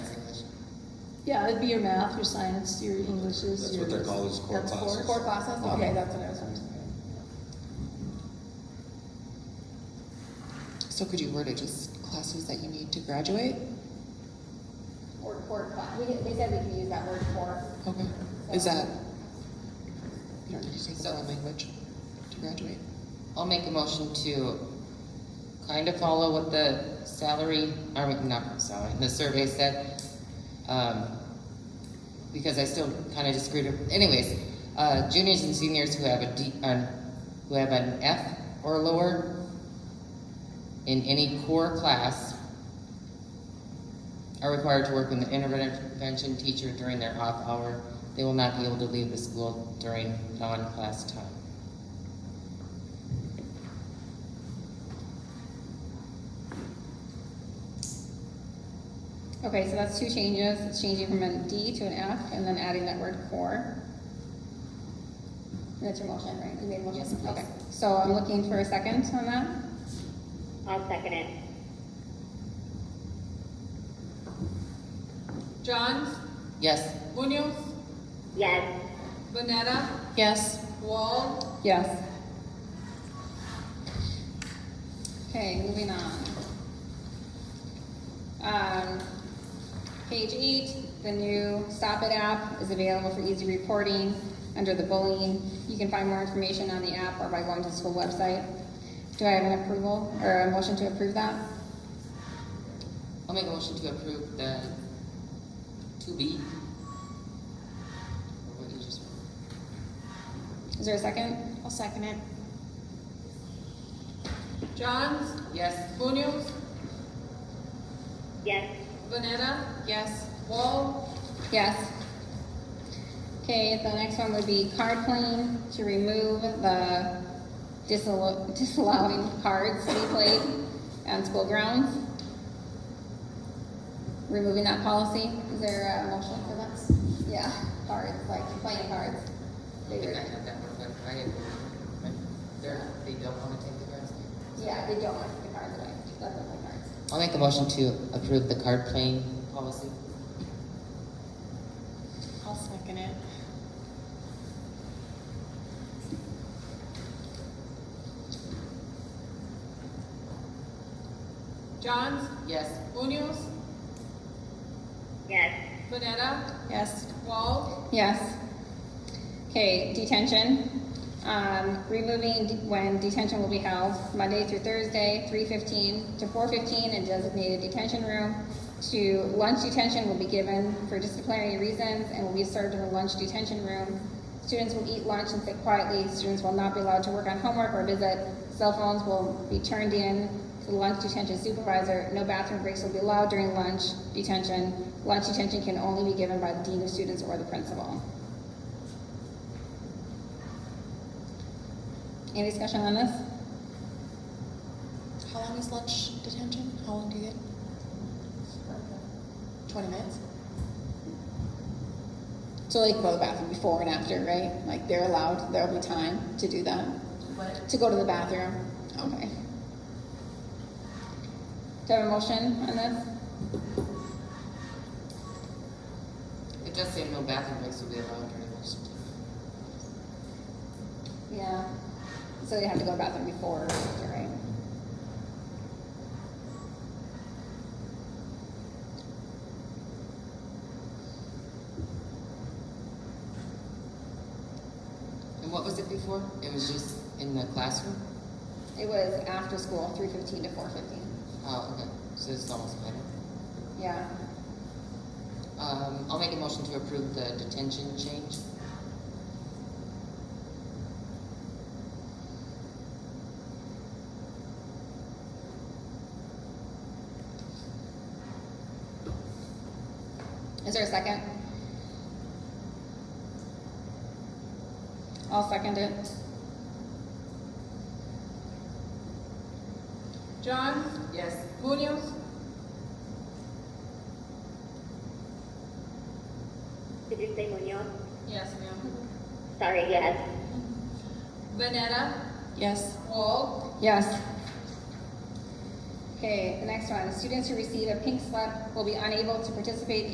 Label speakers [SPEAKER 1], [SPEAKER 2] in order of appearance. [SPEAKER 1] Yeah, it'd be your math, your science, your Englishes.
[SPEAKER 2] That's what they're
[SPEAKER 1] your-
[SPEAKER 2] called, is core
[SPEAKER 1] that's
[SPEAKER 2] classes.
[SPEAKER 1] core.
[SPEAKER 3] Core classes, okay, that's what I was wondering.
[SPEAKER 4] So could you word it just classes that you need to graduate?
[SPEAKER 3] Or core class, we, they said we can use that word core.
[SPEAKER 4] Okay. Is that, you don't need to take the foreign language to graduate?
[SPEAKER 5] I'll make a motion to kind of follow what the salary, or not salary, the survey said. um, Because I still kind of disagreed, with- anyways, uh, juniors and seniors who have a D, an- who have an F or lower in any core class are required to work with an intervention teacher during their off hour. They will not be able to leave the school during non-class time.
[SPEAKER 6] Okay, so that's two changes, it's changing from a D to an F, and then adding that word core.
[SPEAKER 3] That's your motion, right? You made a motion?
[SPEAKER 5] Yes, please.
[SPEAKER 3] Okay.
[SPEAKER 6] So I'm looking for a second on that.
[SPEAKER 7] I'll second it.
[SPEAKER 8] Johns,
[SPEAKER 5] Yes?
[SPEAKER 8] Munoz,
[SPEAKER 7] Yes,
[SPEAKER 8] Banetta,
[SPEAKER 1] Yes,
[SPEAKER 8] Wall,
[SPEAKER 6] Yes. Okay, moving on. Um, page eight, the new Stop It app is available for easy reporting under the bullying. You can find more information on the app or by going to the school website. Do I have an approval or a motion to approve that?
[SPEAKER 5] I'll make a motion to approve the two B.
[SPEAKER 6] Is there a second?
[SPEAKER 1] I'll second it.
[SPEAKER 8] Johns,
[SPEAKER 5] Yes,
[SPEAKER 8] Munoz,
[SPEAKER 7] yes,
[SPEAKER 8] Banetta,
[SPEAKER 1] Yes,
[SPEAKER 8] Wall,
[SPEAKER 6] Yes. Okay, the next one would be card playing, to remove the disallow- disallowing cards to be played on school grounds. Removing that policy,
[SPEAKER 3] Is there a motion for that? Yeah, cards, like playing cards.
[SPEAKER 5] I
[SPEAKER 3] They were-
[SPEAKER 5] have that one, but I agree. They're, they don't wanna take the grass.
[SPEAKER 3] Yeah, they don't want to take the cards away, let them play cards.
[SPEAKER 5] I'll make a motion to approve the card playing policy.
[SPEAKER 1] I'll second it.
[SPEAKER 8] Johns,
[SPEAKER 5] Yes,
[SPEAKER 8] Munoz,
[SPEAKER 7] yes,
[SPEAKER 8] Banetta,
[SPEAKER 1] Yes,
[SPEAKER 8] Wall,
[SPEAKER 6] yes. Okay, detention, um, removing de- when detention will be held, Monday through Thursday, three fifteen to four fifteen in designated detention room. To lunch detention will be given for disciplinary reasons and will be served in the lunch detention room. Students will eat lunch and sit quietly, students will not be allowed to work on homework or visit, cell phones will be turned in to the lunch detention supervisor, no bathroom breaks will be allowed during lunch detention. Lunch detention can only be given by the dean of students or the principal. Any discussion on this?
[SPEAKER 4] How long is lunch detention? How long do you get? Twenty minutes?
[SPEAKER 6] So like go to the bathroom before and after, right? Like they're allowed, there'll be time to do that? To go to the bathroom, okay. Do I have a motion on this?
[SPEAKER 5] it does say no bathroom breaks will be allowed during lunch.
[SPEAKER 6] Yeah. So they have to go to the bathroom before or after, right?
[SPEAKER 5] And what was it before? It was just in the classroom?
[SPEAKER 6] It was after school, three fifteen to four fifteen.
[SPEAKER 5] Oh, okay, so it's almost better.
[SPEAKER 6] Yeah.
[SPEAKER 5] Um, I'll make a motion to approve the detention change.
[SPEAKER 6] Is there a second? I'll second it.
[SPEAKER 8] Johns,
[SPEAKER 5] Yes.
[SPEAKER 8] Munoz,
[SPEAKER 7] did you say Munoz?
[SPEAKER 8] yes ma'am,
[SPEAKER 7] Sorry, yes,
[SPEAKER 8] Banetta,
[SPEAKER 1] yes,
[SPEAKER 8] Wall,
[SPEAKER 6] Yes. Okay, the next one, students who receive a pink slip will be unable to participate